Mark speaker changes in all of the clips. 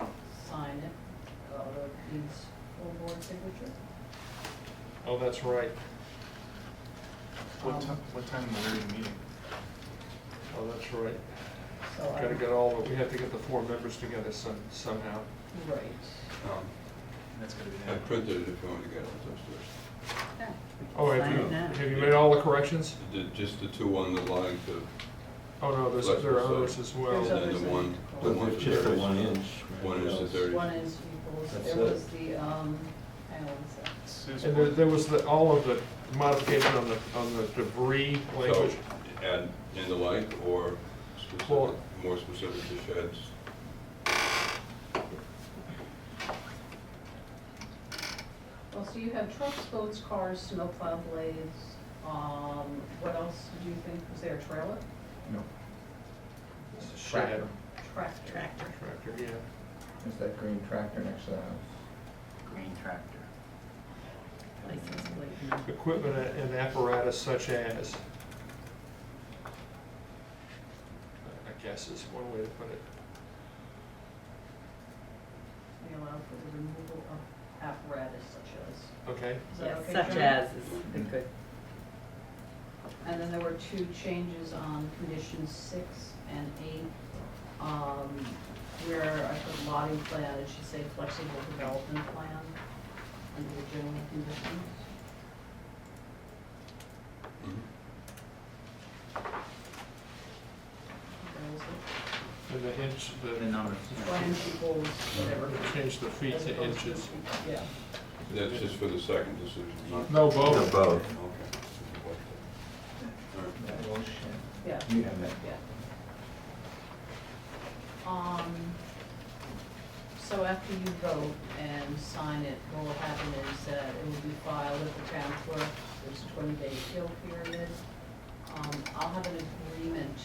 Speaker 1: uh, needs full board signature.
Speaker 2: Oh, that's right.
Speaker 1: Um,
Speaker 3: What time, what time in the regular meeting?
Speaker 2: Oh, that's right.
Speaker 1: So I.
Speaker 2: Gotta get all, the we have to get the four members together some, somehow.
Speaker 1: Right.
Speaker 4: Um,
Speaker 3: And That's gonna be.
Speaker 4: I
Speaker 3: the-
Speaker 4: printed it if you want to get it, it's upstairs.
Speaker 2: Oh, have
Speaker 4: Sign
Speaker 2: you,
Speaker 4: it now.
Speaker 2: have you made all the corrections?
Speaker 4: The- Just the two on the line to,
Speaker 2: Oh, no, there's,
Speaker 4: Left
Speaker 2: there are
Speaker 4: side.
Speaker 2: others as
Speaker 1: There's
Speaker 2: well.
Speaker 1: other-
Speaker 4: and then
Speaker 1: others
Speaker 4: the
Speaker 1: that
Speaker 4: one, the
Speaker 1: you
Speaker 4: one
Speaker 5: It's
Speaker 4: for
Speaker 5: just the
Speaker 4: thirty.
Speaker 5: one inch.
Speaker 4: One inch to thirty.
Speaker 1: One is equals,
Speaker 5: That's
Speaker 1: there
Speaker 5: it.
Speaker 1: was the, um, I always say.
Speaker 3: Sue's
Speaker 2: And there,
Speaker 3: one.
Speaker 2: there was the, all of the modification on the, on the debris
Speaker 4: So,
Speaker 2: language.
Speaker 4: add in the like or specific,
Speaker 2: Well-
Speaker 4: more specific to sheds.
Speaker 1: Well, so you have trucks, boats, cars, snowplow blades, um, what else did you think, was there a trailer?
Speaker 6: No,
Speaker 2: It's a shed.
Speaker 1: Tractor. Tractor.
Speaker 2: Tractor, yeah.
Speaker 6: it's that green tractor next to the house.
Speaker 7: green tractor.
Speaker 1: License plate.
Speaker 2: Equipment and apparatus such as. I guess is one way to put it.
Speaker 1: We allow for the removal of apparatus such as.
Speaker 2: Okay,
Speaker 1: Is that
Speaker 7: Yes,
Speaker 1: okay,
Speaker 7: such
Speaker 1: Joan?
Speaker 7: as is a good,
Speaker 1: And then there were two changes on conditions six and eight, um, where I put lotting plan, it should say flexible development plan under the general conditions.
Speaker 4: Mhm.
Speaker 1: That was it.
Speaker 2: and the inch,
Speaker 3: The
Speaker 2: the,
Speaker 3: number.
Speaker 1: Plans equals whatever.
Speaker 2: change the feet
Speaker 1: As
Speaker 2: to
Speaker 1: opposed to-
Speaker 2: inches.
Speaker 1: Yeah.
Speaker 4: That's just for the second decision, not.
Speaker 2: No, both.
Speaker 5: Above.
Speaker 4: Okay. All right.
Speaker 6: That little shed.
Speaker 1: Yeah,
Speaker 6: You have that.
Speaker 1: yeah. Um, so after you vote and sign it, what will happen is that it will be filed with the town clerk, there's a twenty-day appeal period. Um, I'll have an agreement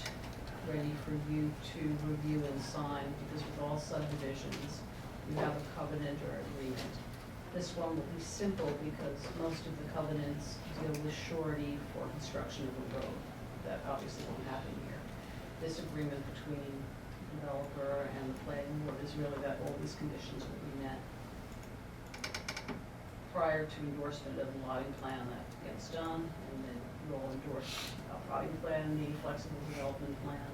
Speaker 1: ready for you to review and sign, because with all subdivisions, you have a covenant or agreement. This one will be simple because most of the covenants deal with surety for construction of a road. That obviously won't happen here. This agreement between the developer and the planning board is really that all these conditions will be met. Prior to endorsement of the lotting plan that gets done, and then you'll endorse a lotting plan, the flexible development plan.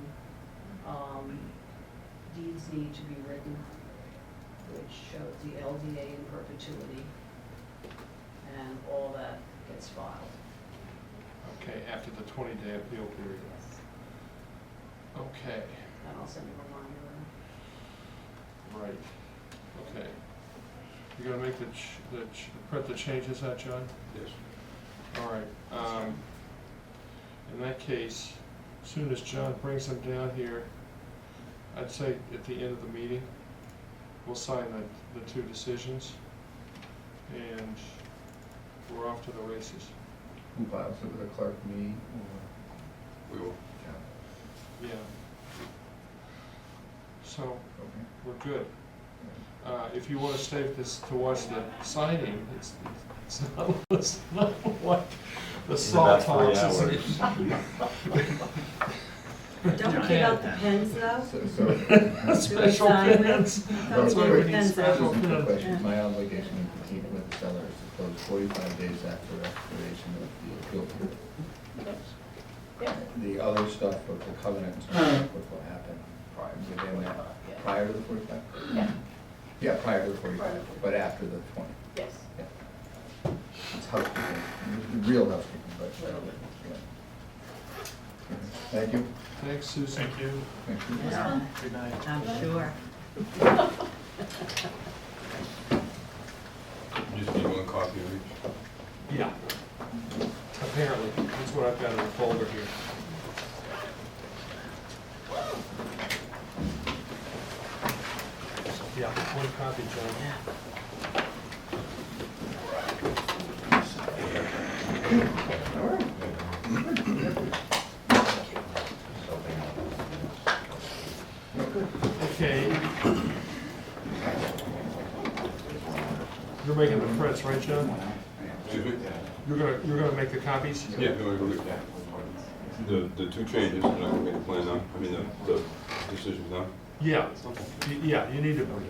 Speaker 1: Um, Deeds need to be written which shows the LDA in perpetuity, and all that gets filed.
Speaker 2: Okay, after the twenty-day appeal period. Okay,
Speaker 1: And I'll send you a reminder.
Speaker 2: right, okay. You're gonna make the, ch- the, ch- print the changes out, John?
Speaker 4: Yes.
Speaker 2: All right. um, In that case, as soon as John brings them down here, I'd say at the end of the meeting, we'll sign the, the two decisions, and we're off to the races.
Speaker 6: Who files it with the clerk, me or
Speaker 4: We will.
Speaker 6: John?
Speaker 2: Yeah. So,
Speaker 6: Okay.
Speaker 2: we're good.
Speaker 6: Yeah.
Speaker 2: Uh, If you want to stay this to watch the signing, it's, it's not, it's not like the
Speaker 5: It's about
Speaker 2: salt
Speaker 5: three
Speaker 2: talks.
Speaker 5: hours.
Speaker 7: don't give out the pens though.
Speaker 6: So, so.
Speaker 2: Special
Speaker 7: Sign it.
Speaker 2: pins. That's why we need
Speaker 7: Pens out.
Speaker 2: special
Speaker 6: Just a
Speaker 2: pins.
Speaker 6: question. My obligation to continue with the seller is to close forty-five days after expiration of the appeal period.
Speaker 1: Yeah.
Speaker 6: The other stuff with the covenants, and what will happen prior, within that, prior to the forty-five?
Speaker 1: Yeah.
Speaker 6: Yeah, prior to the
Speaker 1: Prior to
Speaker 6: forty-five,
Speaker 1: the
Speaker 6: but after the twenty.
Speaker 1: Yes.
Speaker 6: Yeah. It's housekeeping, real housekeeping, but. uh, yeah. Thank you.
Speaker 2: Thanks, Susan.
Speaker 3: Thank you.
Speaker 6: Thank you.
Speaker 7: Yeah,
Speaker 3: Good night.
Speaker 7: I'm sure.
Speaker 4: Just need one copy of each.
Speaker 2: Yeah. Apparently, that's what I've got in the folder here. Yeah, one copy, John. Okay. You're making the prints, right, John?
Speaker 4: Excuse me?
Speaker 2: You're gonna, you're gonna make the copies?
Speaker 4: Yeah, no, we- we- the, the two changes, and I can make a plan now, I mean, the, the decision now.
Speaker 2: Yeah, y- yeah, you need to